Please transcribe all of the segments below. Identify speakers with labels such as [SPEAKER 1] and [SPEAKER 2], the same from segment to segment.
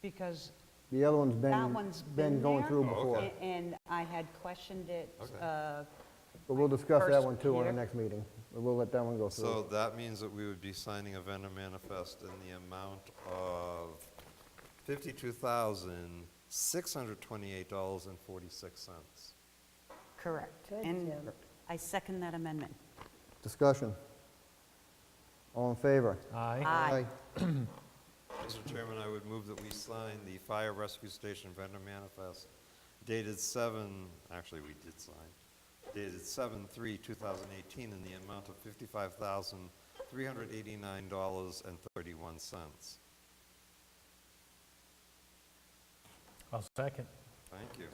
[SPEAKER 1] because
[SPEAKER 2] The other one's
[SPEAKER 1] that
[SPEAKER 2] been,
[SPEAKER 1] one's been
[SPEAKER 2] been going
[SPEAKER 1] there,
[SPEAKER 2] through
[SPEAKER 1] a-
[SPEAKER 2] before.
[SPEAKER 1] And I had questioned it,
[SPEAKER 3] Okay.
[SPEAKER 1] uh,
[SPEAKER 2] But we'll discuss that
[SPEAKER 1] First
[SPEAKER 2] one too on the
[SPEAKER 1] here.
[SPEAKER 2] next meeting. We'll let that one go
[SPEAKER 3] So
[SPEAKER 2] through.
[SPEAKER 3] that means that we would be signing a vendor manifest in the amount of fifty-two thousand, six hundred twenty-eight dollars and forty-six cents.
[SPEAKER 1] correct.
[SPEAKER 4] Good,
[SPEAKER 1] And
[SPEAKER 4] Jim.
[SPEAKER 1] I second that amendment.
[SPEAKER 2] Discussion. All in favor?
[SPEAKER 5] Aye.
[SPEAKER 1] Aye.
[SPEAKER 3] Mr. Chairman, I would move that we sign the fire rescue station vendor manifest dated seven, actually, we did sign, dated seven, three, two thousand eighteen, in the amount of fifty-five thousand, three hundred eighty-nine dollars and thirty-one cents.
[SPEAKER 5] I'll second.
[SPEAKER 3] Thank you.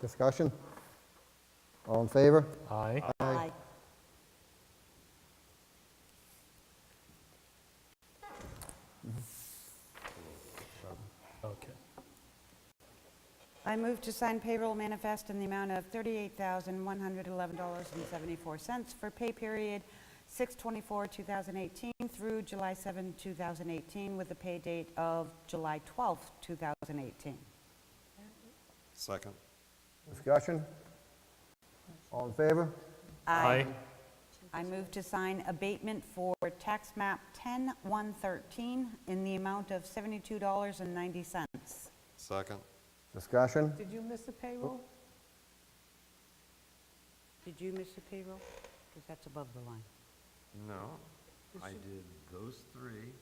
[SPEAKER 2] Discussion? All in favor?
[SPEAKER 5] Aye.
[SPEAKER 1] Aye.
[SPEAKER 5] Okay.
[SPEAKER 1] I move to sign payroll manifest in the amount of $38,111.74 for pay period 6/24/2018 through July 7, 2018, with a pay date of July 12, 2018.
[SPEAKER 3] Second.
[SPEAKER 2] Discussion? All in favor?
[SPEAKER 5] Aye.
[SPEAKER 1] I move to sign abatement for tax map 10113 in the amount of $72.90.
[SPEAKER 3] Second.
[SPEAKER 2] Discussion?
[SPEAKER 4] Did you miss the payroll?
[SPEAKER 1] Did you miss the payroll? Because that's above the line.
[SPEAKER 3] No, I did those three.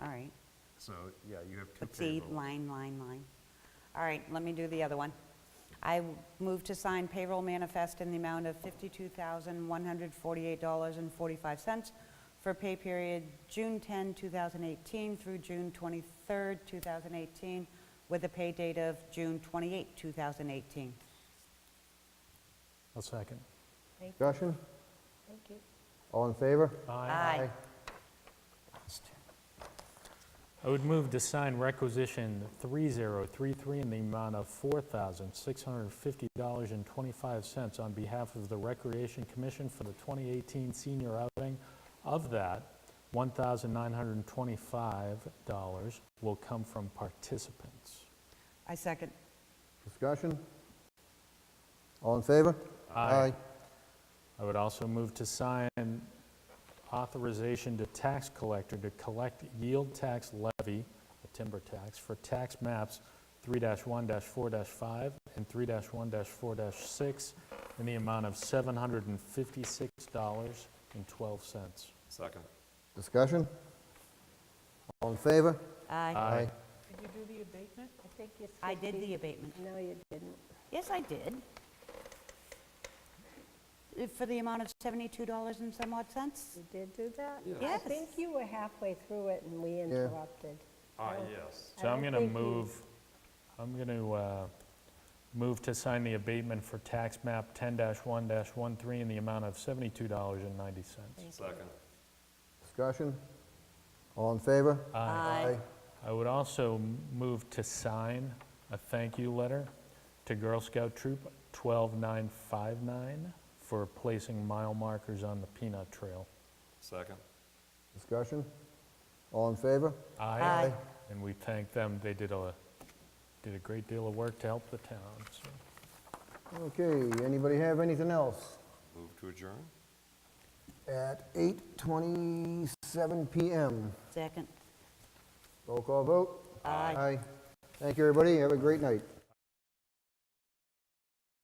[SPEAKER 1] All right.
[SPEAKER 3] So, yeah, you have two
[SPEAKER 1] Let's see,
[SPEAKER 3] payrolls.
[SPEAKER 1] line, line, line. All right, let me do the other one. I w- move to sign payroll manifest in the amount of $52,148.45 for pay period June 10, 2018 through June 23, 2018, with a pay date of June 28, 2018.
[SPEAKER 5] I'll second.
[SPEAKER 2] Discussion?
[SPEAKER 4] Thank you.
[SPEAKER 2] All in favor?
[SPEAKER 5] Aye. I would move to sign requisition 3033 in the amount of $4,650.25 on behalf of the Recreation Commission for the 2018 senior outing. Of that, $1,925 will come from participants.
[SPEAKER 1] I second.
[SPEAKER 2] Discussion? All in favor?
[SPEAKER 5] Aye. I would also move to sign authorization to tax collector to collect yield tax levy, a timber tax, for tax maps 3-1-4-5 and 3-1-4-6 in the amount of $756.12.
[SPEAKER 3] Second.
[SPEAKER 2] Discussion? All in favor?
[SPEAKER 1] Aye.
[SPEAKER 4] Did you do the abatement? I think it's
[SPEAKER 1] I did the abatement.
[SPEAKER 4] No, you didn't.
[SPEAKER 1] Yes, I did. Uh, For the amount of $72 and some odd cents?
[SPEAKER 4] You did do that? I
[SPEAKER 1] Yes.
[SPEAKER 4] think you were halfway through it and we interrupted.
[SPEAKER 3] Ah, yes.
[SPEAKER 4] I
[SPEAKER 5] So I'm
[SPEAKER 4] don't
[SPEAKER 5] going to
[SPEAKER 4] think you-
[SPEAKER 5] move, I'm going to move to sign the abatement for tax map 10-1-13 in the amount of $72.90.
[SPEAKER 3] Second.
[SPEAKER 2] Discussion? All in favor?
[SPEAKER 1] Aye.
[SPEAKER 5] I would also m- move to sign a thank you letter to Girl Scout Troop 12959 for placing mile markers on the Peanut Trail.
[SPEAKER 3] Second.
[SPEAKER 2] Discussion? All in favor?
[SPEAKER 1] Aye.
[SPEAKER 5] And we thank them, they did a, did a great deal of work to help the town, so.
[SPEAKER 2] Okay, anybody have anything else?
[SPEAKER 3] Move to adjourn?
[SPEAKER 2] At 8:27 PM.
[SPEAKER 1] Second.
[SPEAKER 2] Roll call vote?
[SPEAKER 1] Aye.
[SPEAKER 2] Aye. Thank you, everybody. Have a great night.